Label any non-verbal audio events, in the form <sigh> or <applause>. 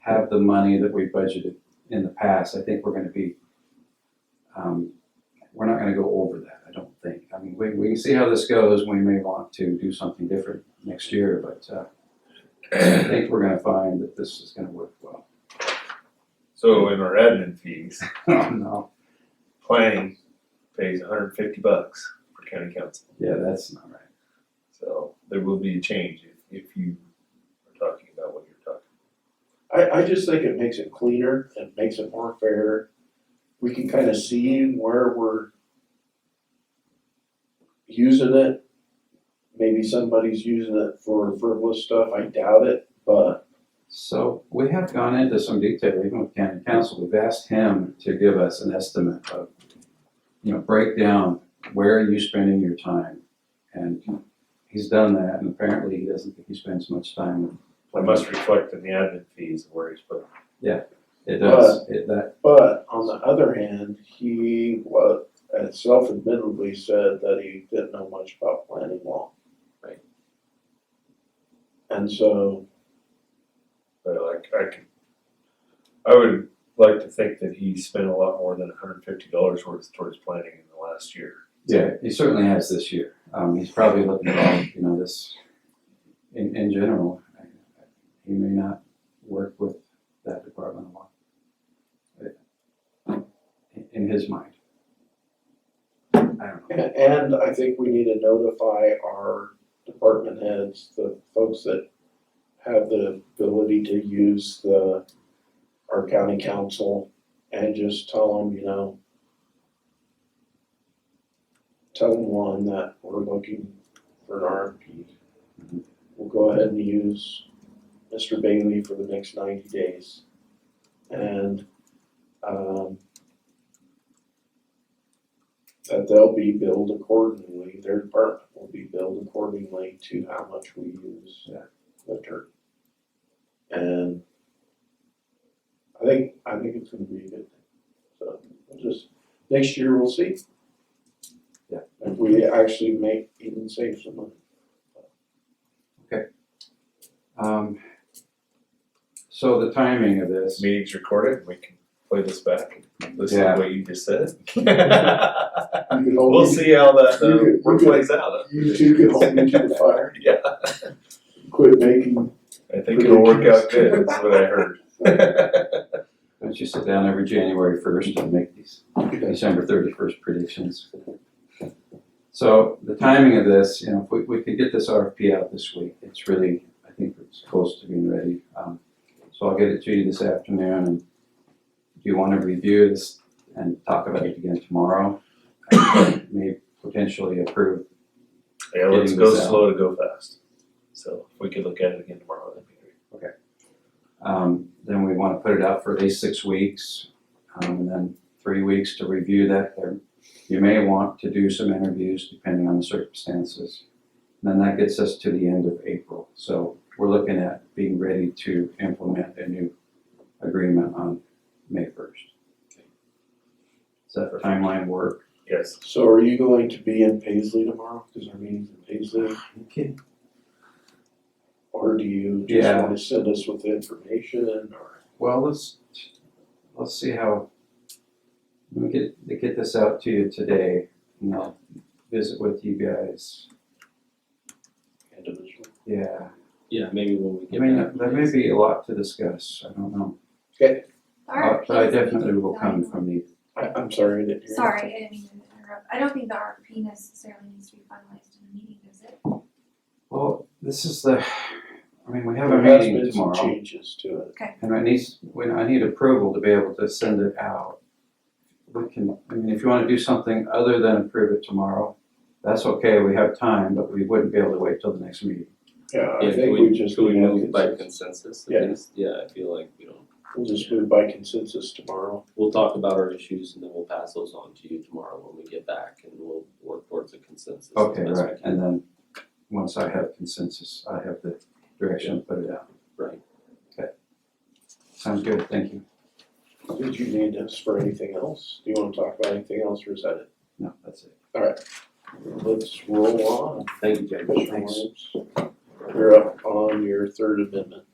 have the money that we budgeted in the past, I think we're gonna be, um, we're not gonna go over that, I don't think. I mean, we, we can see how this goes, we may want to do something different next year, but, uh, I think we're gonna find that this is gonna work well. <laughs> So in our admin fees, Oh, no, planning pays hundred fifty bucks for county council. yeah, that's not right. So there will be a change if, if you are talking about what you're talking. I, I just think it makes it cleaner, it makes it more fair. We can kind of see where we're using it. Maybe somebody's using it for frivolous stuff, I doubt it, but So we have gone into some detail, even with county council, we've asked him to give us an estimate of, you know, breakdown, where are you spending your time? And he's done that, and apparently he doesn't think he spends much time. with- I must reflect in the admin fees where he's put. It does, it, that, but on the other hand, he was self admittedly said that he didn't know much about planning law. Right. And so But like I can, I would like to think that he spent a lot more than hundred fifty dollars worth towards planning in the last year. yeah, he certainly has this year. Um, he's probably looking at, all, you know, this, in, in general, he may not work with that department a lot. In- In his mind. I don't know. A- And I think we need to notify our department heads, the folks that have the ability to use the, our county council and just tell them, you know, tell them one that we're looking for an RFP. We'll go ahead and use Mr. Bailey for the next ninety days. And, um, that they'll be billed accordingly, their department will be billed accordingly to how much we use Yeah. the dirt. And I think, I think it's gonna be a good thing, so we'll just, next year we'll see. Yeah. If we actually make, even save some <laughs> money. Um, so the timing of This this, meeting's recorded, we can play this back, and listen Yeah. to what you just <laughs> said. You could hold We'll me- see how that You could- uh, you work could- plays out. You two could hold <laughs> me to the fire, Yeah, quit making, I think it'll work out good, that's what <laughs> I heard. don't you sit down every January first and make these December thirty-first predictions? So the timing of this, you know, if we, we could get this RFP out this week, it's really, I think it's close to being ready. Um, so I'll get it to you this afternoon and do you wanna review this and talk about it again tomorrow? And May potentially approve, Yeah, let's Getting go this out. slow to go fast. So if we could look at it again tomorrow, that'd be great. um, then we wanna put it out for at least six weeks. Um, and then three weeks to review that. There- You may want to do some interviews depending on the circumstances. And then that gets us to the end of April. So we're looking at being ready to implement a new agreement on May first. Does that timeline work? Yes, so are you going to be in Paisley tomorrow, cause our meeting's in Paisley? Okay. Or do you just Yeah. wanna send us with the information or? Well, let's, let's see how, let me get, to get this out to you today and I'll visit with you guys. individual? Yeah. Yeah, maybe when we I get mean, back. there may be a lot to discuss, I don't know, but but RFP Oh, I is being definitely will come designed- from the, I, I'm sorry, I didn't hear. you. Sorry, I didn't mean to interrupt. I don't think the RFP necessarily needs to be finalized in a meeting, does it? well, this is the, I mean, we have a There has meeting been some tomorrow. changes to it. And I need, when I need approval to be able to send it out. We can, I mean, if you wanna do something other than approve it tomorrow, that's okay, we have time, but we wouldn't be able to wait till the next meeting. Yeah, Yeah, I think could we just, could we need to have move by consensus. consensus? Yeah. I guess? Yeah, I feel like we don't, we'll just move by consensus tomorrow. we'll talk about our issues and then we'll pass those on to you tomorrow when we get back and we'll work towards a consensus. as Okay, best we right, can. and then, once I have consensus, I have the direction to put it out. Right. Okay. Sounds good, thank you. Did you need us for anything else? Do you wanna talk about anything else or is that it? No, that's it. Let's roll on. Thank you, Judge. Commissioner Williams. You're up on your third amendment.